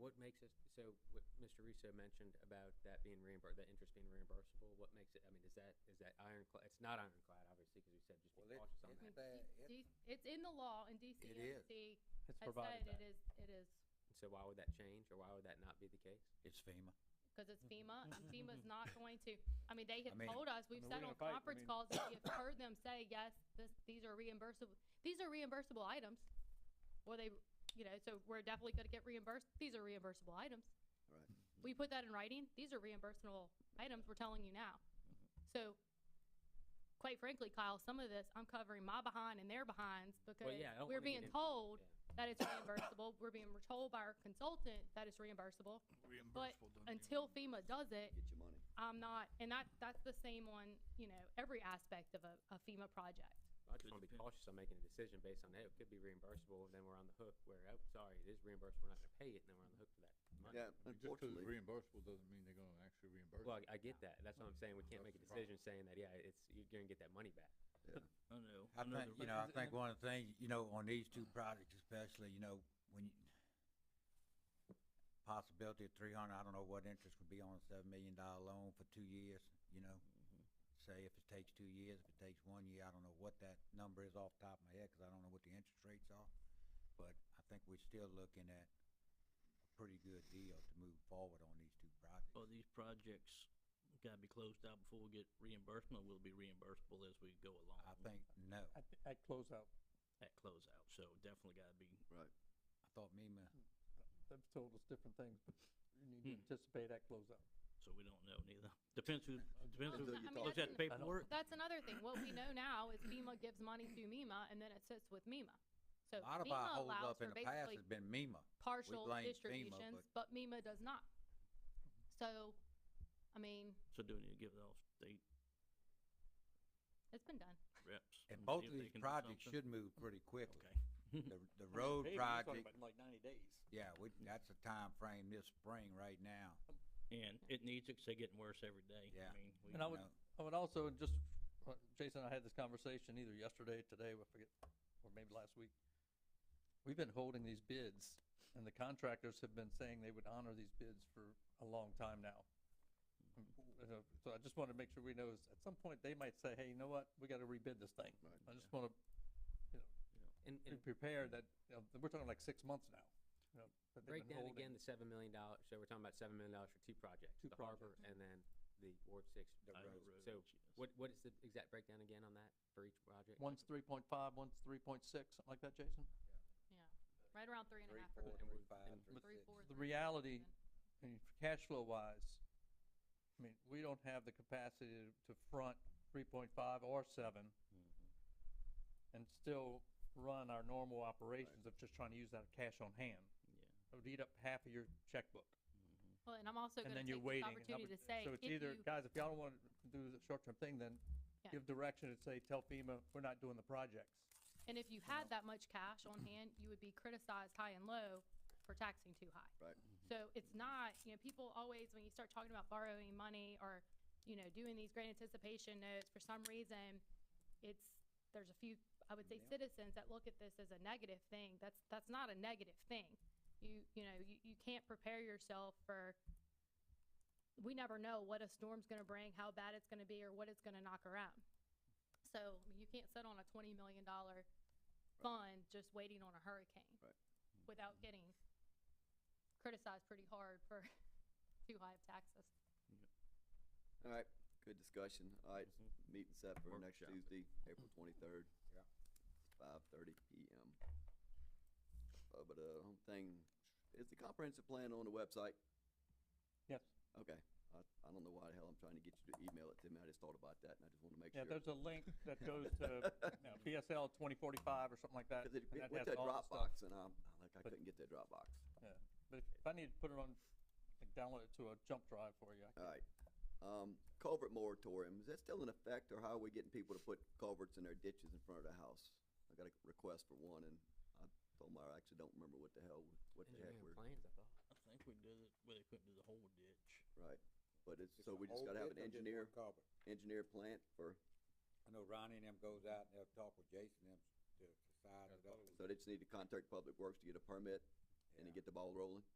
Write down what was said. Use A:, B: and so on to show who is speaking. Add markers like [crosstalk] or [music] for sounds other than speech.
A: what makes it, so what Mr. Russo mentioned about that being reimbursed, that interest being reimbursable, what makes it, I mean, is that, is that ironclad? It's not ironclad, obviously, because we said just be
B: Well, it-
A: cautious on
B: it-
A: that.
B: But
C: D-
B: it-
C: D- It's in the law and DCMC
D: It's
C: has
D: provided
C: said it
D: that.
C: is, it is,
A: So why would that change, or why would that not be the case?
E: It's FEMA.
C: because it's FEMA and FEMA's not going to, I mean, they
E: I
C: have
E: mean-
C: told us, we've
D: mean,
C: said
D: we're
C: on
D: gonna fight, Mm-hmm. I
C: conference
D: mean-
C: calls, that we have heard them say, yes, this, these are reimbursable, these are reimbursable items. Well, they, you know, so we're definitely gonna get reimbursed, these are reimbursable items.
B: Right.
C: We put that in writing, these are reimbursable items, we're telling you now.
E: Mm-hmm.
C: So, quite frankly, Kyle, some of this, I'm covering my behind and their behinds because
A: yeah, I don't
C: we're
A: wanna get
C: being
A: into-
C: told
A: yeah.
C: that it's reimbursable. We're being told by our consultant that it's reimbursable. But until FEMA does it,
B: Get your money.
C: I'm not, and that, that's the same on, you know, every aspect of a, a FEMA project.
A: I just
F: Could
A: want to be
F: depend.
A: cautious on making a decision based on, hey, it could be reimbursable, then we're on the hook where, oh, sorry, it is reimbursable, we're not gonna pay it, and then we're on the hook for that money.
B: Yeah,
G: Just because it's
B: unfortunately,
G: reimbursable doesn't mean they're gonna actually reimburse.
A: Well,
G: it.
A: I I get that, that's what I'm saying, we can't make a
G: That's the problem.
A: decision saying that, yeah, it's, you're gonna get that money back.
F: I know.
E: I
F: know
E: think,
F: the
E: you know, I
F: represent-
E: think one of the things, you know, on these two projects especially, you know, when you, possibility of three hundred, I don't know what interest would be on a seven million dollar loan for two years, you know?
B: Mm-hmm.
E: Say if it takes two years, if it takes one year, I don't know what that number is off the top of my head, cause I don't know what the interest rates are. But I think we're still looking at a pretty good deal to move forward on these two projects.
F: Well, these projects gotta be closed out before we get reimbursement, will be reimbursable as we go along.
E: I think, no, I
D: At, at closeout,
F: At closeout, so definitely gotta be,
B: right.
E: thought MEMA,
D: they've told us different things, but you need to anticipate at closeout.
F: Hmm. so we don't know neither. Depends who, depends who
C: Well, I mean,
F: looks
C: that's
F: at the
C: an-
F: paperwork.
C: That's another thing. What we know now is FEMA gives money to MEMA and then it sits with MEMA. So
E: a lot of our
C: FEMA
E: holdup
C: allows
E: in
C: for
E: the past
C: basically
E: has been MEMA.
C: partial
E: blame FEMA,
C: distributions, but MEMA does not. So, I mean,
F: So do we need to give those state
C: it's been done.
F: reps?
E: And
F: see
E: both
F: Hmm, if
E: of
F: they
E: these
F: can do
E: projects
F: something?
E: should move pretty quickly.
F: Okay.
E: The,
F: [laughs]
E: the road project,
D: Like ninety days.
E: yeah, we, that's a time frame this spring right now.
F: And it needs, it's getting worse every day.
E: Yeah.
F: I mean, we,
D: Oh, And I would,
E: know.
D: I would also just, uh, Jason, and I had this conversation either yesterday, today, I forget, or maybe last week. We've been holding these bids and the contractors have been saying they would honor these bids for a long time now. And, uh, So I just want to make sure we know is at some point they might say, hey, you know what, we got to rebid this thing. I
B: Right.
D: just want to
A: And,
D: be
A: and
D: prepared that, you know, we're talking like six months now. you know, that they've
A: break
D: been
A: down
D: holding.
A: again the seven million dollars, so we're talking about seven million dollars for two projects,
D: Two
A: the harbor and then the Ward Six.
E: The
F: I know
E: roads.
F: roads,
A: So
F: yes.
A: what, what is the exact breakdown again on that for each project?
D: One's three point five, one's three point six, something like that, Jason?
C: Yeah. Right around three and a
E: Three,
C: half.
E: four,
C: percent.
A: and
E: three,
A: we're-
E: five,
A: and
E: three,
C: Three,
E: six.
C: four,
D: The
C: three,
D: reality-
C: seven.
D: I mean, cash flow wise, I mean, we don't have the capacity to- to front three point five or seven
B: Mm-hmm.
D: and still run our normal operations of just trying to use that cash on hand.
F: yeah.
D: It would eat up half of your checkbook.
C: Well, and I'm also
D: And
C: gonna
D: then you're
C: take this
D: waiting. and
C: opportunity to
D: opportu-
C: say,
D: So
C: if
D: it's either,
C: you,
D: guys, if y'all don't want to do the short-term thing, then
C: Yeah.
D: give direction and say, tell FEMA, we're not doing the projects.
C: and if you had that much cash on hand, you would be criticized high and low for taxing too high.
B: Right.
C: So it's not, you know, people always, when you start talking about borrowing money or, you know, doing these great anticipation notes, for some reason, it's, there's a few, I would say
E: Yeah.
C: citizens that look at this as a negative thing. That's, that's not a negative thing. You, you know, you, you can't prepare yourself for, we never know what a storm's gonna bring, how bad it's gonna be, or what it's gonna knock around. So, I mean, you can't sit on a twenty million dollar fund just waiting on a hurricane.
B: Right.
C: Without getting criticized pretty hard for [laughs] too high of taxes.
B: All right, good discussion. All right,
D: Mm-hmm.
B: meeting set for next
F: Workshop.
B: Tuesday, April twenty-third.
E: Yeah.
B: Five thirty PM. Uh, but, uh, home thing, is the comprehensive plan on the website?
D: Yes.
B: Okay, I, I don't know why the hell I'm trying to get you to email it to me. I just thought about that and I just wanted to make
D: Yeah,
B: sure.
D: there's a link that goes to, you know, PSL twenty forty-five or something like that.
B: [laughs] Cause it
D: and that
B: went
D: has
B: to
D: all the stuff.
B: Dropbox and I'm, I'm like, I
D: But-
B: couldn't get that Dropbox.
D: Yeah, but if if I need to put it on, like download it to a jump drive for you, I
B: All
D: can-
B: right. Um, culvert moratorium, is that still in effect or how are we getting people to put culverts in their ditches in front of the house? I got a request for one and I told them I actually don't remember what the hell, what the heck
A: Engineering
B: we're,
A: plans, I thought.
F: I think we did it, where they couldn't do the whole ditch.
B: right. But it's,
E: It's a
B: so we just
E: whole
B: gotta have an
E: bit of just
B: engineer,
E: one culvert.
B: engineer plant for,
E: I know Ronnie and them goes out and they'll talk with Jason and them to, to size it up.
B: so they just need to contact Public Works to get a permit and to
E: Yeah.
B: get the ball rolling?